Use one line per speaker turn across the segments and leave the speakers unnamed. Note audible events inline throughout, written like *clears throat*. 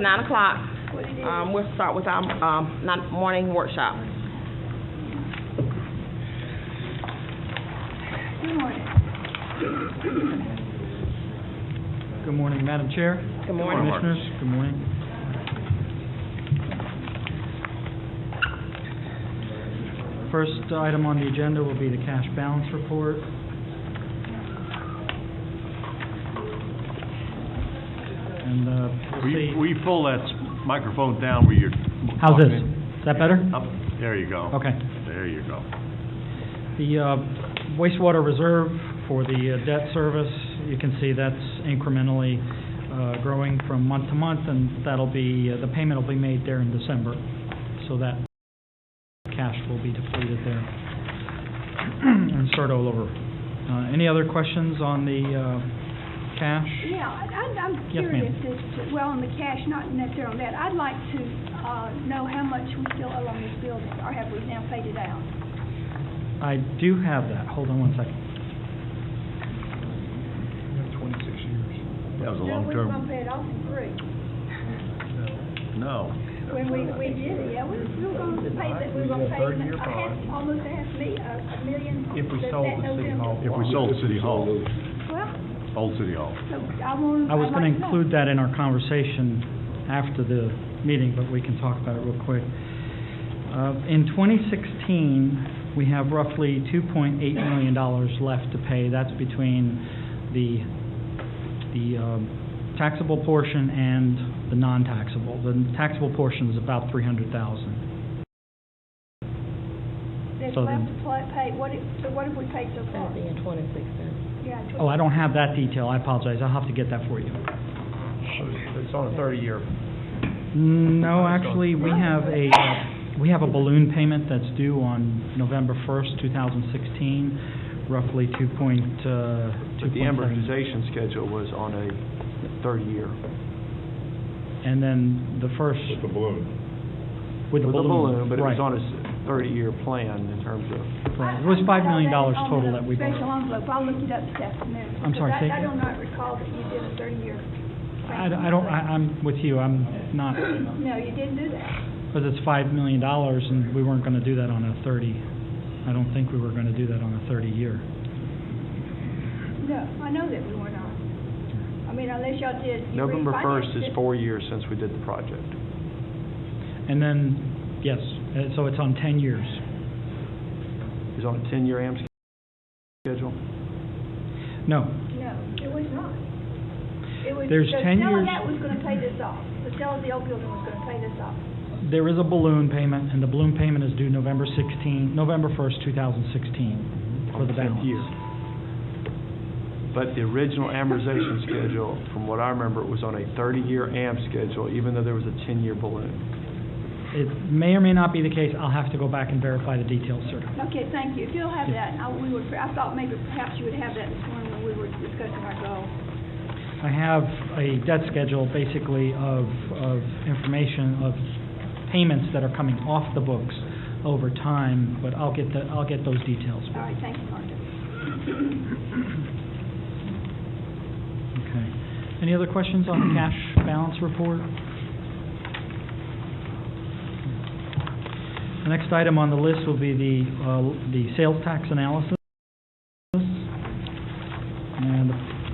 nine o'clock. Um, we'll start with our, um, not, morning workshop.
Good morning, Madam Chair.
Good morning.
Commissioners, good morning. First item on the agenda will be the cash balance report. And, uh,
Will
we'll
you,
see.
will you pull that s- microphone down where you're...
How's this?
talking?
Is that better?
Up, there you go.
Okay.
There you go.
The uh, wastewater reserve for the uh, debt service, you can see that's incrementally uh, growing from month to month, and that'll be, uh, the payment will be made there in December, so that cash will be depleted there *clears throat* and start all over. Uh, Any other questions on the uh, cash?
Yeah, I- I- I'm
Yes, ma'am.
curious as to, well, on the cash, not necessarily on that. I'd like to uh know how much we still owe on this building, or have we now paid it out?
I do have that, hold on one second.
That was a
No,
long
we were gonna
term.
pay it off in three.
No.
When we, we did it, yeah, we we were gonna pay that, we were gonna pay it, I had almost half me, a a million. If we sold the city hall.
If we sold City Hall,
Well,
old City Hall.
so I want.
I was
I'd
going to
like know.
include that in our conversation after the meeting, but we can talk about it real quick. Uh, In 2016, we have roughly $2.8 million left to pay. That's between the, the um, taxable portion and the non-taxable. The taxable portion is about 300,000.
There's
so
left
then-
to pla- pay, what, if- so what have we paid so far?
That'd be in twenty-sixteen.
Yeah,
Oh, I don't have that detail, I apologize, I'll have to get that for you.
It's on a thirty-year.
No, actually, we have a, uh, we have a balloon payment that's due on November 1st, 2016, roughly 2 point, uh, 2.7.
But the amortization schedule was on a thirty-year.
And then the first,
With the balloon.
with the balloon.
But it was
right,
on a s- thirty-year plan in terms of,
right. It was $5 million
I- I-
total that we
On the special
borrowed.
envelope, I'll look it up this afternoon.
I'm sorry, say
because I, I
again?
do not recall that you did a thirty-year.
I I don't, I- I'm with you, I'm not,
No, you didn't do that.
because it's $5 million, and we weren't going to do that on a 30, I don't think we were going to do that on a 30-year.
No, I know that we were not. I mean, unless y'all did. you
November first
refinanced
is
it.
four years since we did the project.
And then, yes, uh, so it's on 10 years.
It's on a ten-year am sch- schedule.
No,
No, it was not. It was,
There's
the
10
sale of
years-
that was gonna pay this off. The sale of the old building was gonna pay this off.
There is a balloon payment, and the balloon payment is due November 16, November 1st, 2016, for
on
the
tenth
balance.
year. But the original amortization schedule, from what I remember, it was on a thirty-year am schedule, even though there was a ten-year balloon.
It may or may not be the case, I'll have to go back and verify the details, sir.
Okay, thank you. If you'll have that, I, we would, I thought maybe perhaps you would have that this morning when we were discussing our goal.
I have a debt schedule, basically, of, of information of payments that are coming off the books over time, but I'll get the, I'll get those details.
All right, thank you, Martha.
Okay. Any other questions on the cash balance report? The next item on the list will be the, uh, the sales tax analysis. And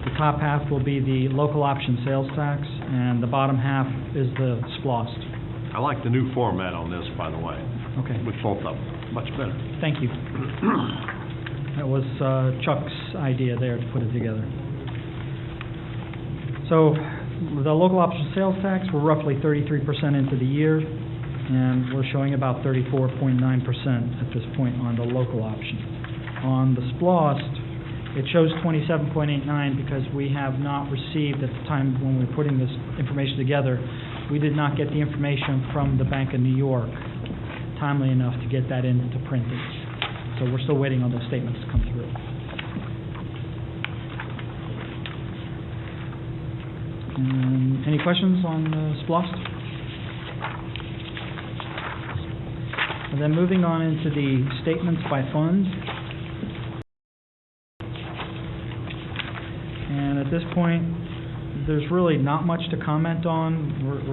the top half will be the local option sales tax, and the bottom half is the splost.
I like the new format on this, by the way,
Okay,
with both of them. Much better.
thank you. That was uh, Chuck's idea there to put it together. So the local option sales tax, we're roughly 33% into the year, and we're showing about 34.9% at this point on the local option. On the splost, it shows 27.89 because we have not received, at the time when we were putting this information together, we did not get the information from the Bank of New York timely enough to get that into printing. So we're still waiting on those statements to come through. Um, Any questions on uh, SPLOST? And then moving on into the statements by fund. And at this point, there's really not much to comment on. We're- we're